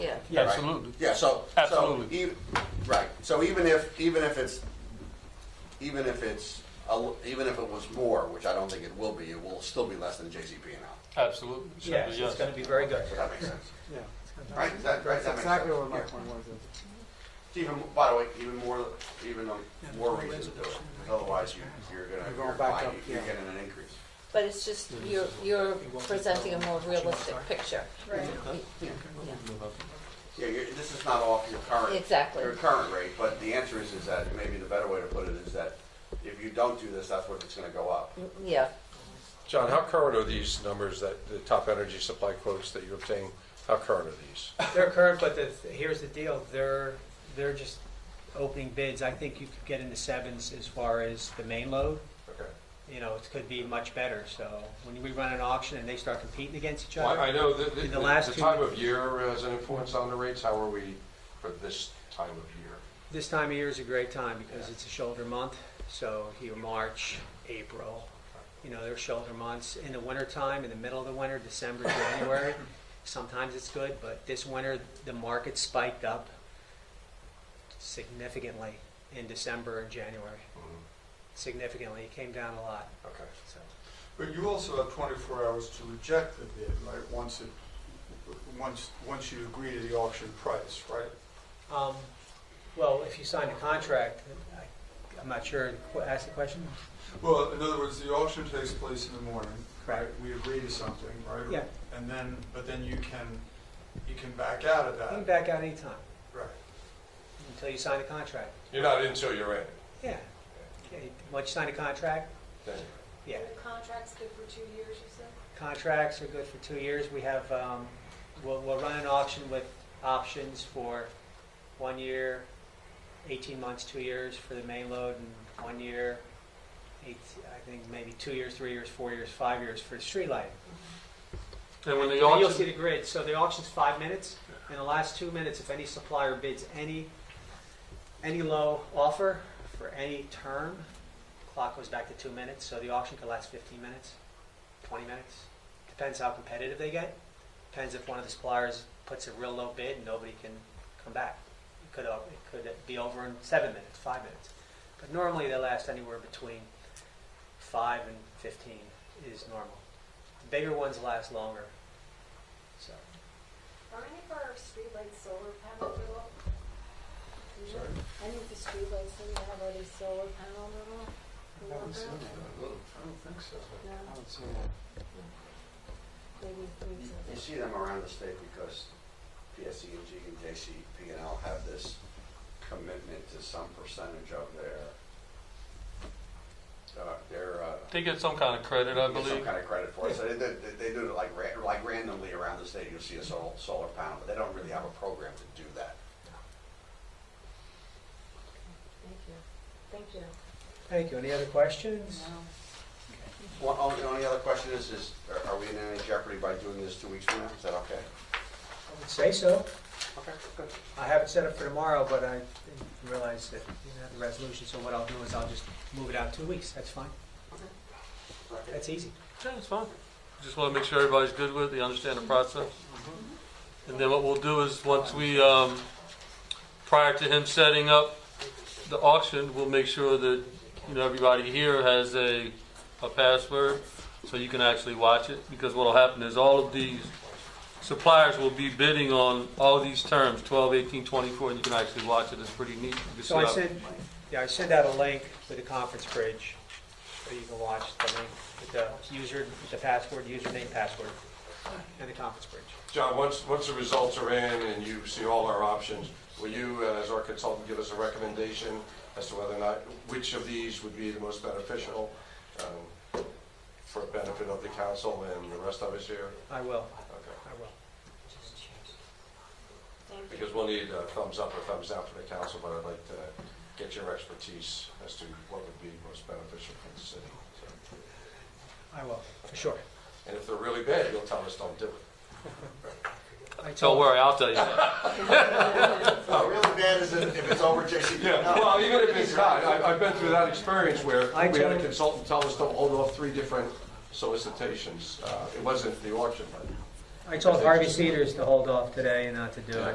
Yeah. Yeah, right? absolutely. Yeah, so. so Absolutely. e- Right, so even if, even if it's, even if it's, a l- even if it was more, which I don't think it will be, it will still be less than JCP and L. Absolutely. Yes, it's going to be very good. So that makes sense. Yeah. Right, is that- right, that That's makes exactly sense. what my Yeah. point was. is- Even, by the way, even more, even a- more reason to do it, otherwise you, you're gonna, You're going you're back buying- up, you're yeah. getting an increase. But it's just, you're, you're presenting a more realistic picture. Right. Yeah, you're, this is not off your current. Exactly. Your current rate, but the answer is, is that, maybe the better way to put it is that if you don't do this, that's what it's gonna go up. Yeah, John, how current are these numbers that, the top energy supply quotes that you obtain, how current are these? They're current, but the, here's the deal, they're, they're just opening bids. I think you could get in the sevens as far as the main load. Okay. You know, it could be much better, so when we run an auction and they start competing against each Well, I other, I know that, the- In the the last the two- time of year has an influence on the rates, how are we for this time of year? this time of year is a great time because it's a shoulder month, so here, March, April, you know, they're shoulder months. In the wintertime, in the middle of the winter, December, January, sometimes it's good, but this winter, the market spiked up significantly in December and January. Mhm. significantly. It came down a lot. Okay. So But you also have 24 hours to reject the bid, right? Once it, once, once you agree to the auction price, right? Um, Well, if you sign a contract, I- I'm not sure, Qu- ask the question? Mm-hmm. Well, in other words, the auction takes place in the morning, right? Correct. We agree to something, right? Yeah, And then, but then you can, you can back out of you can that, back out anytime right? until you sign a contract. You're not until you're in, Yeah. Okay, Once you sign a contract, then you're in. yeah. Contract's good for two years, you said? Contracts are good for two years. We have, um, we'll, we'll run an auction with options for one year, 18 months, two years for the main load, and one year, eight, I think maybe two years, three years, four years, five years for street lighting. And when the And You'll see auction, the grid, so the auction's five minutes, in the last two minutes, if any supplier bids any, any low offer for any term, clock goes back to two minutes, so the auction could last fifteen minutes, twenty minutes, depends how competitive they get, depends if one of the suppliers puts a real low bid and nobody can come back. It could, o- it could be over in seven minutes, five minutes, but normally they last anywhere between five and fifteen is normal. The Bigger ones last longer, so. Are any of our streetlights solar panel at all? Any of the streetlights in there have any solar panel at all? I haven't seen I that. don't think so. No, I haven't seen that. maybe we should. You see them around the state because PSEG and JCP and L have this commitment to some percentage of their, uh, their, uh, they get some kind of credit, I get some believe. kind of credit for it. So they, do- they, they do it like, ra- like randomly around the state, you'll see a solar, solar panel, but they don't really have a program to do that. Thank you, thank you. Thank you. Any other questions? No. One, oh, the only other question is, is are- are we in any jeopardy by doing this two weeks from now? Is that okay? I would say so. Okay, good. I have it set up for tomorrow, but I didn't realize that you didn't have the resolution, so what I'll do is I'll just move it out two weeks. That's fine. That's easy. Yeah, it's fine. Just want to make sure everybody's good with it, they understand the process. Mm-hmm. And then what we'll do is, once we, um, prior to him setting up the auction, we'll make sure that, you know, everybody here has a, a password, so you can actually watch it, because what'll happen is all of these suppliers will be bidding on all these terms, 12, 18, 24, and you can actually watch it, it's pretty neat. You can So I see how- sent, yeah, I sent out a link with the conference bridge, so you can watch the link with the user, the password, username, password, and the conference bridge. John, once, once the results are in and you see all our options, will you, uh, as our consultant, give us a recommendation as to whether or not, which of these would be the most beneficial um, for benefit of the council and the rest of us here? I will, Okay. I will. Because we'll need a thumbs up or thumbs down from the council, but I'd like to get your expertise as to what would be most beneficial for the city. So, I will, for sure. And if they're really bad, you'll tell us don't do it. I Don't told- worry, I'll tell you that. No, Uh, really bad is if if it's over JCP. Yeah, well, even if it's not, I- I've been through that experience where I we had a told- consultant tell us to hold off three different solicitations. Uh, It wasn't the auction, but I told Harvey Cedars to hold off today and not to do it.